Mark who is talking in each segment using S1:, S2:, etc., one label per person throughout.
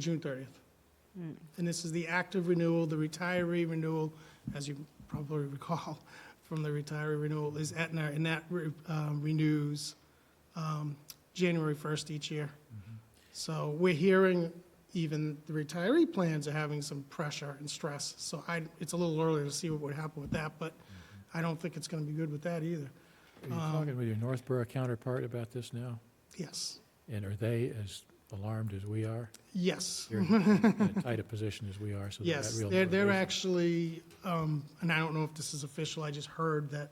S1: June 30th. And this is the active renewal, the retiree renewal, as you probably recall from the retiree renewal, is Aetna, and that re- um, renews um, January 1st each year. So we're hearing even the retiree plans are having some pressure and stress. So I, it's a little early to see what would happen with that, but I don't think it's going to be good with that either.
S2: Are you talking with your Northborough counterpart about this now?
S1: Yes,
S2: And are they as alarmed as we are?
S1: yes.
S2: You're in as tight a position as we are, so they're
S1: Yes,
S2: at real
S1: they're, they're
S2: motivation.
S1: actually, um, and I don't know if this is official, I just heard that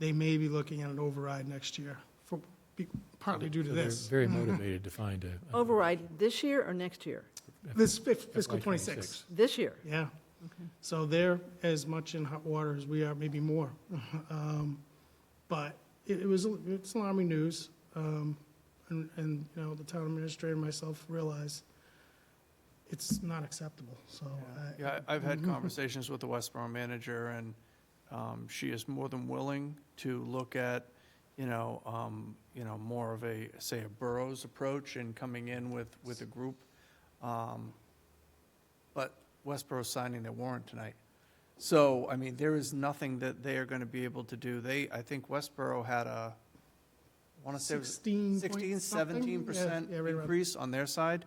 S1: they may be looking at an override next year for, be- partly due to
S2: So they're
S1: this.
S2: Very motivated to find a- a.
S3: Override this year or next year?
S1: This fif- fiscal
S2: FY
S1: twenty-six,
S3: This year?
S1: yeah. So they're as much in hot water as we are, maybe more. Um, But it, it was, it's alarming news. Um, and, and, you know, the town administrator and myself realize it's not acceptable, so. uh, I-
S4: Yeah, I- I've had conversations with the Westboro manager, and um, she is more than willing to look at, you know, um, you know, more of a, say, a boroughs approach and coming in with, with a group. Um, But Westboro's signing their warrant tonight. So, I mean, there is nothing that they are going to be able to do. They, I think Westboro had a, I want to say. it was-
S1: 16 point
S4: 16,
S1: something?
S4: 17 percent
S1: Yeah, yeah, right around
S4: increase on their side.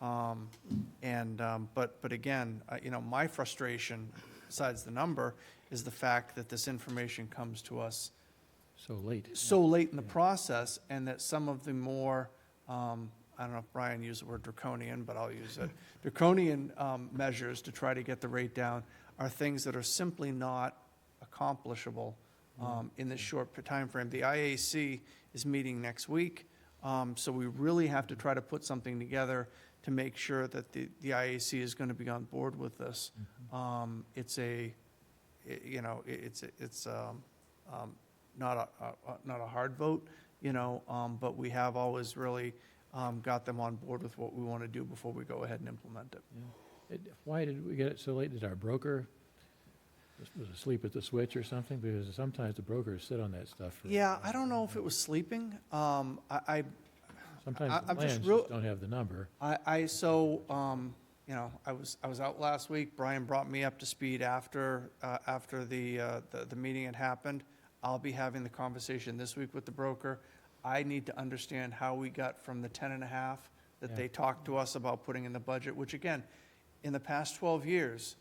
S4: Um, And, um, but, but again, uh, you know, my frustration, besides the number, is the fact that this information comes to us
S2: So late.
S4: so late in the process, and that some of the more, um, I don't know if Brian used the word draconian, but I'll use it, draconian um, measures to try to get the rate down are things that are simply not accomplishable um, in this short time frame. The IAC is meeting next week, um, so we really have to try to put something together to make sure that the, the IAC is going to be on board with this. Um, It's a, i- you know, i- it's, it's um, um, not a, a- a- not a hard vote, you know, um, but we have always really um, got them on board with what we want to do before we go ahead and implement it.
S2: It- Why did we get it so late? Did our broker was- was asleep at the switch or something? Because sometimes the brokers sit on that stuff for. uh,
S4: Yeah, I don't know if it was sleeping. Um, I, I-
S2: Sometimes the
S4: I'm just
S2: plans
S4: real-
S2: just don't have the number.
S4: I, I, so, um, you know, I was, I was out last week. Brian brought me up to speed after, uh, after the, uh, the, the meeting had happened. I'll be having the conversation this week with the broker. I need to understand how we got from the ten and a half that
S2: Yeah.
S4: they talked to us about putting in the budget, which again, in the past twelve years,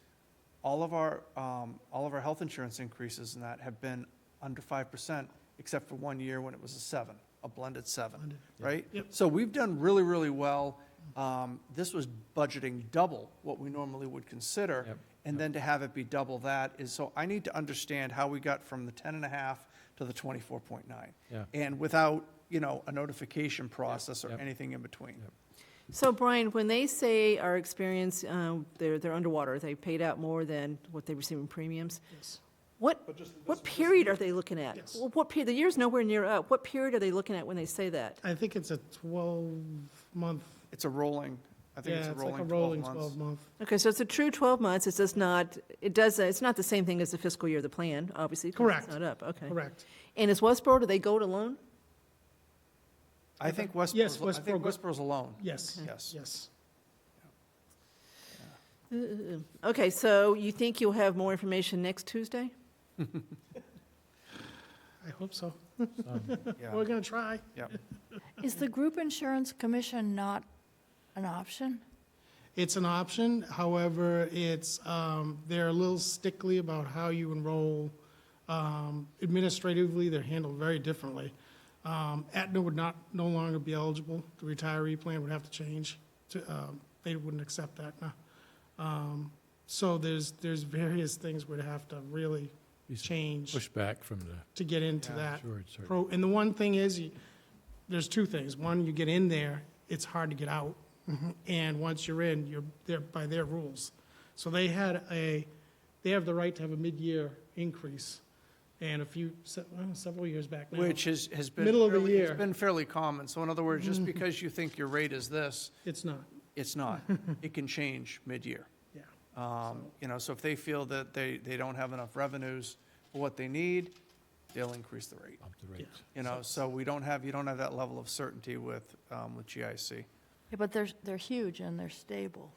S4: all of our, um, all of our health insurance increases and that have been under five percent, except for one year when it was a seven, a blended seven, right?
S1: Yep.
S4: So we've done really, really well. Um, this was budgeting double what we normally would consider.
S2: Yep.
S4: And then to have it be double that is, so I need to understand how we got from the ten and a half to the twenty-four point nine.
S2: Yeah.
S4: And without, you know, a notification process or
S2: Yep.
S4: anything in between.
S3: So Brian, when they say our experience, um, they're, they're underwater, they paid out more than what they receive in premiums,
S1: Yes.
S3: what, what period are they looking at?
S1: Yes.
S3: Well, What period, the year's nowhere near up, what period are they looking at when they say that?
S1: I think it's a 12-month,
S4: It's a rolling, I think it's
S1: yeah,
S4: a
S1: it's like a
S4: rolling
S1: rolling
S4: twelve months.
S1: 12-month.
S3: Okay, so it's a true 12 months, it's just not, it does, uh, it's not the same thing as the fiscal year, the plan, obviously, 'cause
S1: Correct.
S3: it's not up, okay.
S1: Correct.
S3: And is Westboro, do they go it alone?
S4: I think Westboro's,
S1: Yes,
S4: I think
S1: Westboro-
S4: Westboro's alone.
S1: Yes,
S4: Yes.
S1: yes.
S3: Uh, Okay, so you think you'll have more information next Tuesday?
S1: I hope so.
S4: Yeah.
S1: We're going to try.
S4: Yep.
S5: Is the group insurance commission not an option?
S1: It's an option, however, it's, um, they're a little stickly about how you enroll. Um, Administratively, they're handled very differently. Um, Aetna would not, no longer be eligible. The retiree plan would have to change. to, um, They wouldn't accept that now. Um, So there's, there's various things we'd have to really
S2: These
S1: change
S2: Pushback from the
S1: to get into
S4: Yeah,
S1: that.
S2: insured, certainly.
S1: pro, and the one thing is, you- there's two things. One, you get in there, it's hard to get out.
S4: Mm-hmm.
S1: And once you're in, you're there by their rules. So they had a, they have the right to have a mid-year increase. And a few, se- well, several years back now.
S4: Which is, has been.
S1: Middle of the
S4: fairly-
S1: year. Mm-hmm.
S4: It's been fairly common. So in other words, just because you think your rate is this,
S1: It's not,
S4: it's not. It can change mid-year.
S1: yeah.
S4: Um, You know, so if they feel that they, they don't have enough revenues for what they need, they'll increase the rate.
S2: Up the rate.
S4: You know, so we don't have, you don't have that level of certainty with, um, with GIC.
S5: Yeah, But they're, they're huge and they're stable.